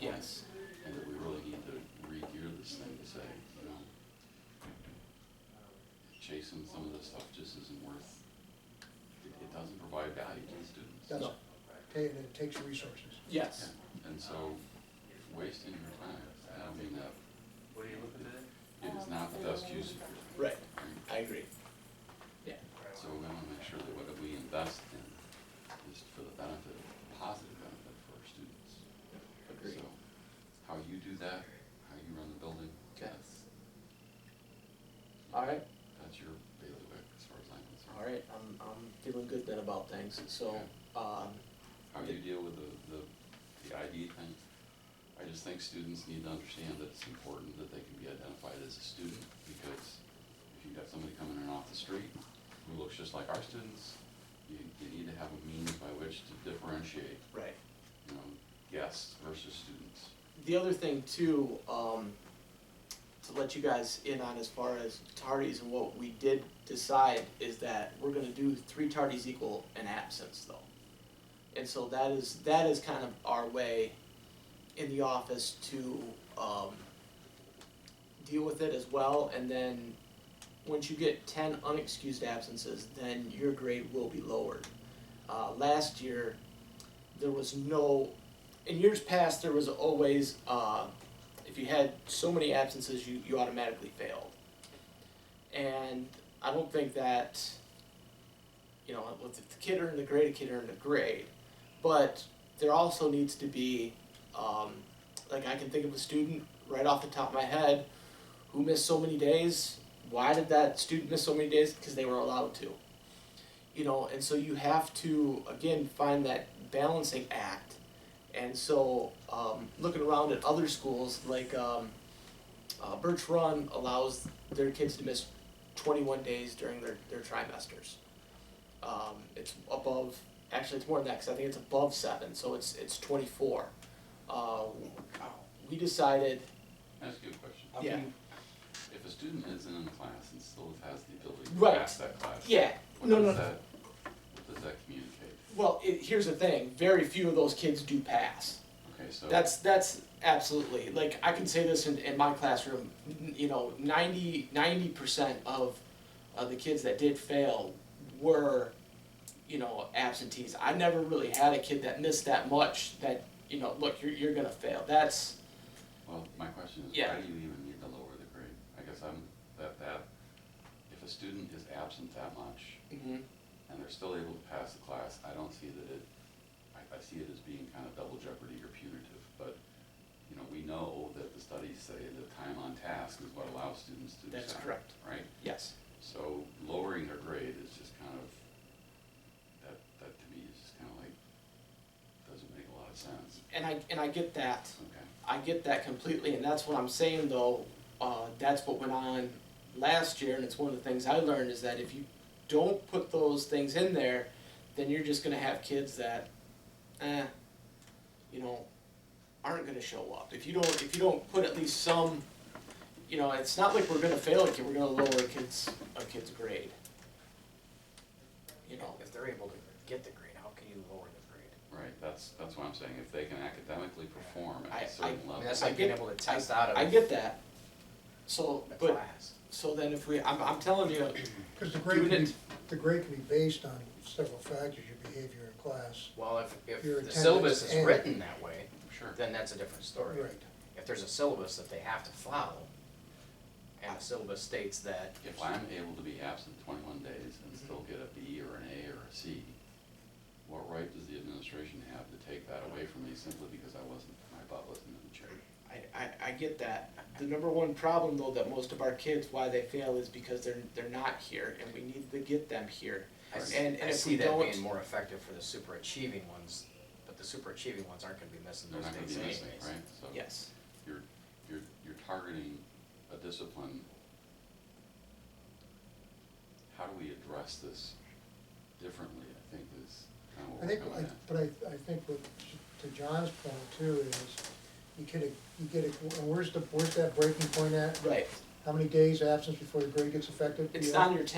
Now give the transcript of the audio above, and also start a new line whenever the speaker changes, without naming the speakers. Yes.
and that we really need to re-gear this thing to say, you know, chasing some of this stuff just isn't worth, it, it doesn't provide value to the students.
That's, ta- and it takes resources.
Yes.
Yeah, And so wasting your time, I mean, that,
What are you looking at?
it is not the best use of your time.
Right. I agree. Yeah.
So we wanna make sure that what we invest in is for the benefit, positive benefit for our students.
Agreed.
So, how you do that, how you run the building,
Okay.
that's,
All right.
that's your bailiwick as far as I'm concerned.
All right. I'm I'm feeling good then about things. So, um,
how you deal with the, the, the ID thing. I just think students need to understand that it's important that they can be identified as a student, because if you've got somebody coming in off the street who looks just like our students, you, you need to have a means by which to differentiate,
right.
you know, guests versus students.
The other thing too, um, to let you guys in on as far as tardies and what we did decide is that we're gonna do three tardies equal an absence though. And so that is, that is kind of our way in the office to, um, deal with it as well. And then, once you get ten unexcused absences, then your grade will be lowered. Uh, last year, there was no in years past, there was always, uh, if you had so many absences, you, you automatically failed. And I don't think that, you know, if the kid earned a grade, a kid earned a grade. But there also needs to be, um, like I can think of a student right off the top of my head who missed so many days. Why did that student miss so many days? Because they were allowed to. You know, and so you have to, again, find that balancing act and so, um, looking around at other schools, like, um, uh, Birch Run allows their kids to miss twenty-one days during their, their trimesters. Um, it's above, actually, it's more than that, 'cause I think it's above seven, so it's, it's twenty-four. Uh, we decided,
Can I ask you a question?
How
Yeah.
can,
If a student is in a class and still has the ability to
Right.
pass that class,
yeah,
what
no, no,
does
no.
that, what does that communicate?
well, it, here's the thing, very few of those kids do pass.
Okay, so.
That's that's absolutely like I can say this in, in my classroom. n- You know, 90 percent of uh, the kids that did fail were, you know, absentees. I never really had a kid that missed that much. That you know, look, you're you're gonna fail. That's
Well, my question is,
Yeah.
why do you even need to lower the grade? I guess I'm, that, that, if a student is absent that much
Mm-hmm.
and they're still able to pass the class, I don't see that it, I, I see it as being kind of double jeopardy or punitive, but, you know, we know that the studies say that time on task is what allows students to
that's
excel,
correct.
Right?
Yes.
So lowering their grade is just kind of, that, that to me is just kind of like, doesn't make a lot of sense.
And I and I get that.
Okay,
I get that completely, and that's what I'm saying though. Uh, that's what went on last year, and it's one of the things I learned is that if you don't put those things in there, then you're just gonna have kids that, eh, you know, aren't gonna show up. If you don't, if you don't put at least some, you know, it's not like we're gonna fail a kid. We're gonna lower a kid's a kid's grade. You know,
if they're able to get the grade, how can you lower the grade?
right, that's, that's what I'm saying, if they can academically perform
I-
at
I-
a certain
I
level.
mean, that's like being able to test out of
I
the
get that. So, but
class.
so then if we, I'm I'm telling you,
Because the grade
Doing
can
it-
be, the grade can be based on several factors, your behavior in class.
Well, if, if
Your
the
attendance
syllabus is
and-
written that way,
Sure.
then that's a different story.
Right.
If there's a syllabus that they have to follow, and the syllabus states that.
If I'm able to be absent twenty-one days and still get a B or an A or a C, what right does the administration have to take that away from me simply because I wasn't, my butt wasn't in the chair?
I, I, I get that. The number one problem though that most of our kids why they fail is because they're they're not here and we need to get them here.
I s-
And- and
I
if
see
we
that
don't-
being more effective for the super achieving ones, but the super achieving ones aren't gonna be missing
They're
those
not gonna be
days anyways.
missing, right? So
Yes.
you're, you're, you're targeting a discipline. How do we address this differently, I think is kind of
I
what we're
Oh,
think,
coming
I-
at.
but I, I think what, to John's point too is, you get a, you get a, and where's the, where's that breaking point at?
Right.
How many days absence before the grade gets affected?
It's
Yeah.
on your